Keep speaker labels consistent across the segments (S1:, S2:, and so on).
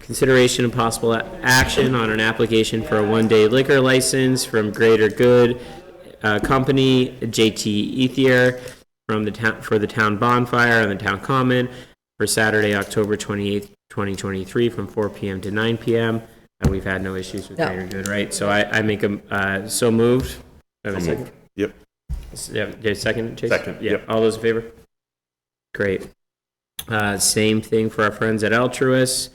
S1: Consideration of possible a- action on an application for a one-day liquor license from Greater Good uh, Company, JT Ethier, from the town, for the town bonfire on the town common for Saturday, October 28th, 2023, from 4 PM to 9 PM. And we've had no issues with
S2: No.
S1: Greater Good, right? So I, I make a, uh, so moved. Do I have a second?
S3: Yep.
S1: S- Yeah, yeah, second, Chase?
S3: Second,
S1: Yeah,
S3: yep.
S1: all those in favor? Great. Uh, Same thing for our friends at Altruis.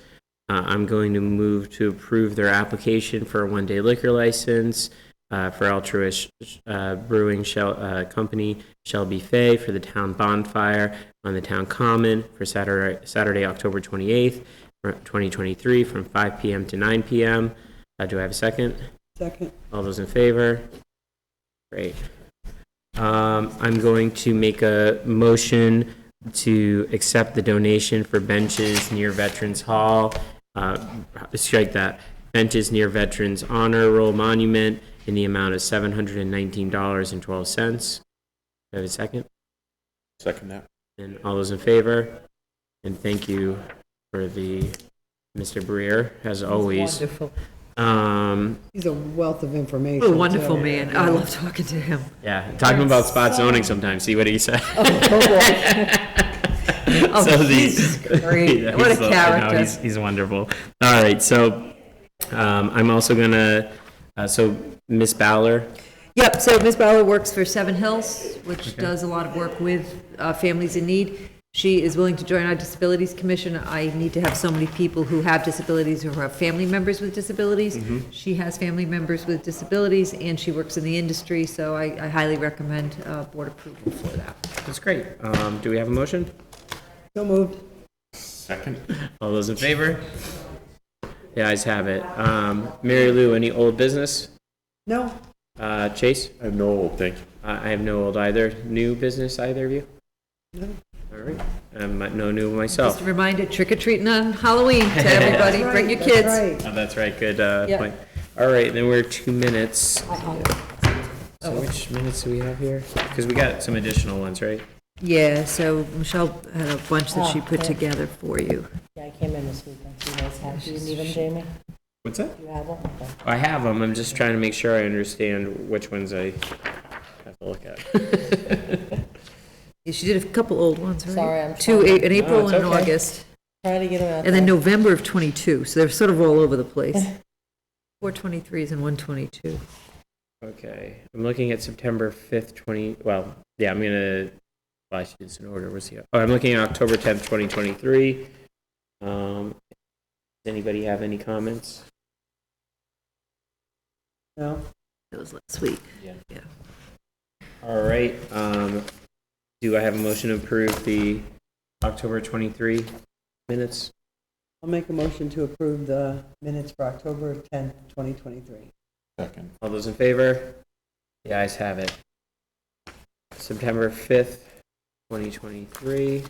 S1: Uh, I'm going to move to approve their application for a one-day liquor license uh, for Altruis uh, Brewing Shell- uh, Company Shelby Fay for the town bonfire on the town common for Saturday, Saturday, October 28th, for 2023, from 5 PM to 9 PM. Uh, Do I have a second?
S2: Second.
S1: All those in favor? Great. Um, I'm going to make a motion to accept the donation for benches near Veterans Hall. Uh, strike that. Benches near Veterans Honor Roll Monument in the amount of seven hundred and nineteen dollars and twelve cents. Do I have a second?
S3: Second that.
S1: And all those in favor? And thank you for the, Mr. Breer, as always.
S4: Wonderful.
S1: Um,
S2: He's a wealth of information.
S4: A wonderful
S2: too.
S4: man. I love talking to him.
S1: Yeah, talking about spot zoning sometimes. See what he said.
S4: Oh,
S1: So the-
S4: he's great.
S1: Yeah,
S4: What a
S1: he's I know,
S4: character.
S1: He's, he's wonderful. All right, so um, I'm also gonna. Uh, so Miss Bowler.
S4: Yep, so Ms. Bauer works for Seven Hills, which does a lot of work with uh, families in need. She is willing to join our Disabilities Commission. I need to have so many people who have disabilities or who have family members with disabilities.
S1: Mm-hmm.
S4: She has family members with disabilities, and she works in the industry, so I I highly recommend uh, board approval for that.
S1: That's great. Um, do we have a motion?
S2: So moved.
S3: Second?
S1: All those in favor? The ayes have it. Um, Mary Lou, any old business?
S2: No,
S1: Uh, Chase,
S3: I have no old, thank you.
S1: I I have no old either. New business, either of you? No. All right. Um, no new myself.
S4: Just a reminder, trick or treating on Halloween to everybody. Bring your kids.
S2: Right.
S1: Oh, that's right. Good uh,
S4: Yeah.
S1: point. All right, then we're two minutes. So
S4: Oh.
S1: which minutes do we have here? Because we got some additional ones, right?
S4: Yeah, so Michelle had a bunch that she put together for you.
S5: Yeah, I came in this weekend, so you guys have, do you need them, Jamie?
S1: What's that?
S5: Do you have them? Okay.
S1: I have them. I'm just trying to make sure I understand which ones I have to look at.
S4: Yeah, She did a couple old ones, right?
S5: Sorry, I'm
S4: Two,
S5: trying-
S4: a- in April
S1: it's
S4: and in
S1: okay.
S4: August,
S5: Try to get them out.
S4: and then
S5: there.
S4: November of '22, so they're sort of all over the place. Four twenty-threes and one twenty-two.
S1: Okay, I'm looking at September 5th, 20. Well, yeah, I'm gonna. Well, I should do this in order. Where's the? Oh, I'm looking at October 10th, 2023. Um, does anybody have any comments?
S2: No.
S4: That was last week.
S1: All right. Um, do I have a motion to approve the October 23 minutes?
S2: I'll make a motion to approve the minutes for October 10th, 2023.
S3: Second.
S1: All those in favor? The ayes have it. September 5th, 2023.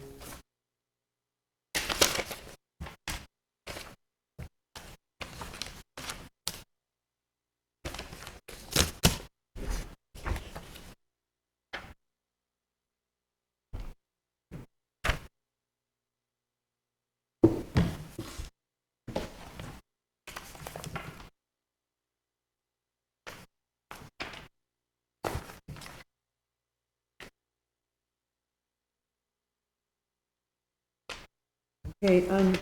S2: Okay, on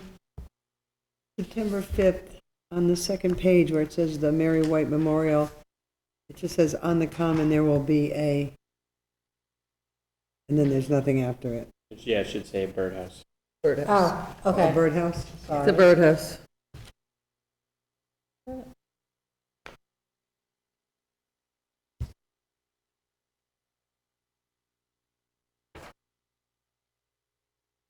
S2: September 5th, on the second page where it says the Mary White Memorial, it just says, "On the common, there will be a," and then there's nothing after it.
S1: Yeah, it should say birdhouse.
S4: Birdhouse.
S5: Oh,
S2: Oh,
S5: okay.
S2: birdhouse,
S4: The
S2: sorry.
S4: birdhouse.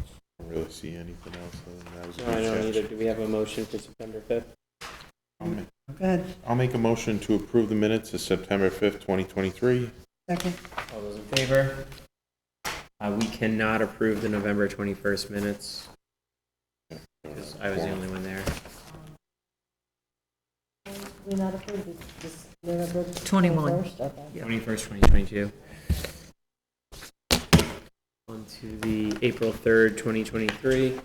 S3: I don't really see anything else other than that. was a
S1: No, I don't
S3: good
S1: either.
S3: catch.
S1: Do we have a motion for September 5th?
S3: I'll ma-
S2: Go ahead,
S3: I'll make a motion to approve the minutes of September 5th, 2023.
S2: second.
S1: All those in favor? Uh, we cannot approve the November 21st minutes. 'cause I was the only one there.
S5: We not approved this, this November
S4: 21.
S5: 21st? Okay.
S1: 21st, 2022. On to the April 3rd, 2023.